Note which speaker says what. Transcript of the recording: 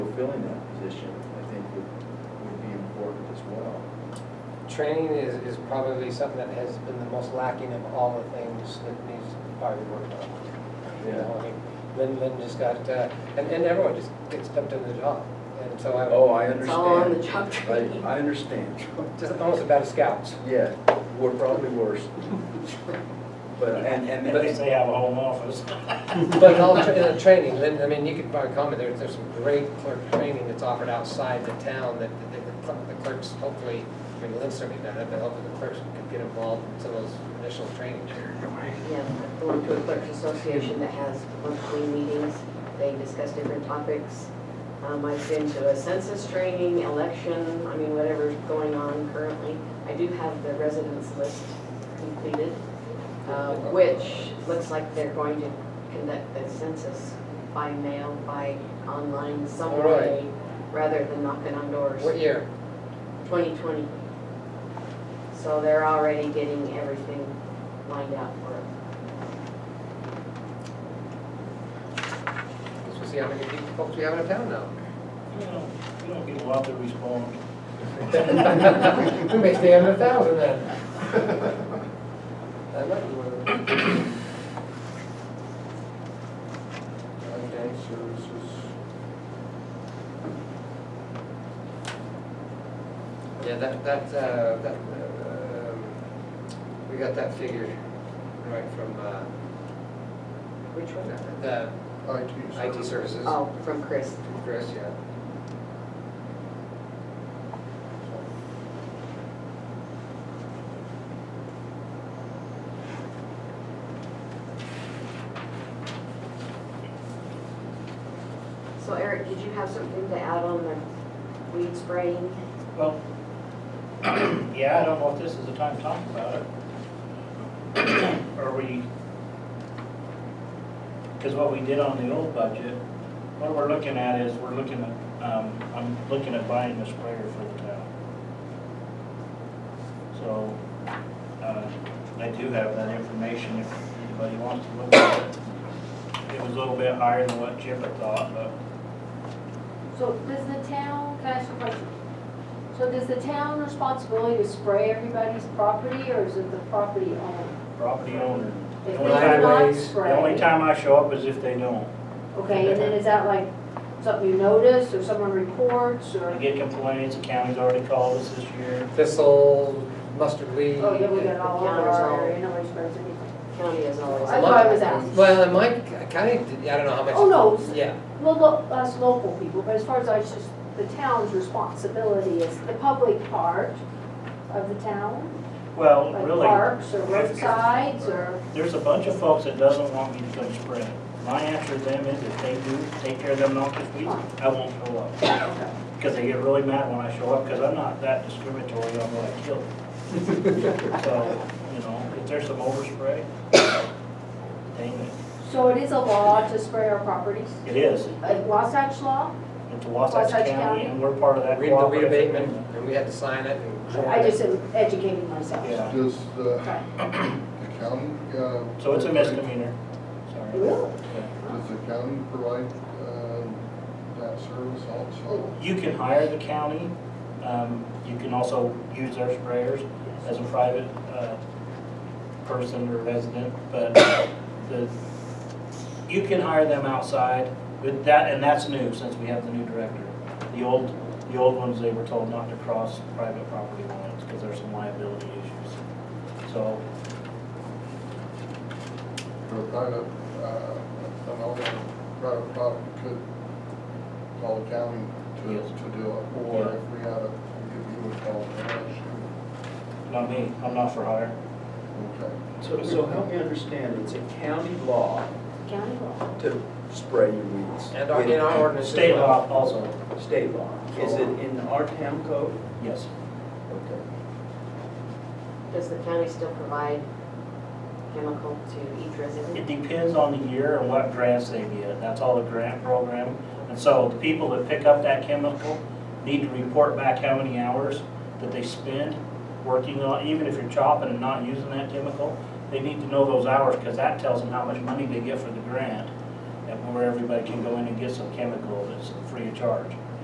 Speaker 1: filling that position, I think would, would be important as well.
Speaker 2: Training is, is probably something that has been the most lacking of all the things that needs to probably worked on. You know, I mean, Lynn, Lynn just got, uh, and, and everyone just gets dumped into the job. And so I,
Speaker 1: Oh, I
Speaker 3: It's all on the
Speaker 1: understand.
Speaker 3: job
Speaker 1: I,
Speaker 3: training.
Speaker 1: I understand.
Speaker 2: just almost about as scouts.
Speaker 1: Yeah, we're probably worse. But, and, and.
Speaker 4: At least they have a home office.
Speaker 2: But all tra- uh, training, Lynn, I mean, you could probably comment, there's, there's some great clerk training that's offered outside the town that that the cl- the clerks hopefully, I mean, Lynn certainly not, but hopefully the clerks could get involved in some of those initial trainings.
Speaker 3: Yeah, I belong to a clerks association that has monthly meetings. They discuss different topics. Um, I've been to a census training, election, I mean, whatever's going on currently. I do have the residence list completed, uh, which looks like they're going to conduct the census by mail, by online, some
Speaker 2: All right.
Speaker 3: way, rather than knocking on doors.
Speaker 2: What year?
Speaker 3: 2020. So they're already getting everything lined out for it.
Speaker 2: Because we'll see how many people, folks we have in town now.
Speaker 4: You know, you don't get a lot to respond.
Speaker 2: We may stay under a thousand then. That might be one of them.
Speaker 1: Okay, services.
Speaker 2: Yeah, that, that, uh, that, um, we got that figure right from, uh, which one, the IT services.
Speaker 3: Oh, from Chris.
Speaker 2: Chris, yeah.
Speaker 3: So Eric, did you have something to add on the weed spraying?
Speaker 4: Well, yeah, I don't know if this is the time to talk about it. Are we, because what we did on the old budget, what we're looking at is, we're looking at, um, I'm looking at buying a sprayer for the town. So, uh, I do have that information if anybody wants to look at it. It was a little bit higher than what Chip had thought, but
Speaker 5: So does the town, can I ask a question? So does the town responsibility to spray everybody's property or is it the property owner?
Speaker 4: property owner.
Speaker 5: If
Speaker 4: The
Speaker 5: they
Speaker 4: only time-
Speaker 5: do not
Speaker 2: Driveways, the
Speaker 4: The only
Speaker 5: spray,
Speaker 4: time I show up is if they don't.
Speaker 5: okay, and then is that like something you notice or someone reports
Speaker 4: I
Speaker 5: or?
Speaker 4: get complaints, the county's already called us this year.
Speaker 2: Thistle, mustard weed.
Speaker 5: Oh, yeah, we got it all over our area, nobody sprays anything.
Speaker 3: County is always.
Speaker 5: That's what I was asking.
Speaker 2: Well, and Mike, kind of, I don't know how much.
Speaker 5: Oh, no.
Speaker 2: Yeah,
Speaker 5: Well, lo- us local people, but as far as I, it's just the town's responsibility is the public part of the town,
Speaker 4: Well,
Speaker 5: like
Speaker 4: really,
Speaker 5: parks or roadsides or,
Speaker 4: there's a bunch of folks that doesn't want me to put a spray. My answer to them is if they do take care of them noxious weeds, I won't show up.
Speaker 5: okay.
Speaker 4: Because they get really mad when I show up, because I'm not that discriminatory on what I kill. So, you know, if there's some overspray, dang it.
Speaker 5: So it is a law to spray our properties?
Speaker 4: It is.
Speaker 5: Like Wasatch Law?
Speaker 4: It's Wasatch
Speaker 5: Wasatch
Speaker 4: County
Speaker 5: County.
Speaker 4: and we're part of that
Speaker 2: read the weed
Speaker 4: cooperative
Speaker 2: abatement,
Speaker 4: agreement.
Speaker 2: and we had to sign it and.
Speaker 5: I just am educating myself.
Speaker 4: Yeah,
Speaker 6: Does the
Speaker 5: Okay.
Speaker 6: the county? uh,
Speaker 4: so it's a misdemeanor. Sorry.
Speaker 5: Really?
Speaker 6: Does the county provide um, that service also?
Speaker 4: You can hire the county, um, you can also use their sprayers as a private, uh, person or resident, but the, you can hire them outside with that, and that's new since we have the new director. The old, the old ones, they were told not to cross private property lines because there's some liability issues. So,
Speaker 6: Or a private, uh, an owner, private property could call the county to,
Speaker 4: Yes.
Speaker 6: to do it? Or if we had a, if you would call the county?
Speaker 4: not me, I'm not for hire.
Speaker 6: Okay.
Speaker 1: So, so help me understand, it's a county law
Speaker 5: County law.
Speaker 1: to spray your weeds.
Speaker 2: And our, in our ordinance. as
Speaker 4: State
Speaker 2: well.
Speaker 4: law also,
Speaker 1: State law. Is it in our town code?
Speaker 4: yes.
Speaker 1: Okay.
Speaker 3: Does the county still provide chemical to each
Speaker 4: It
Speaker 3: resident?
Speaker 4: depends on the year and what grants they get. That's all the grant program. And so the people that pick up that chemical need to report back how many hours that they spend working on, even if you're chopping and not using that chemical, they need to know those hours because that tells them how much money they get for the grant and where everybody can go in and get some chemical that's free of charge.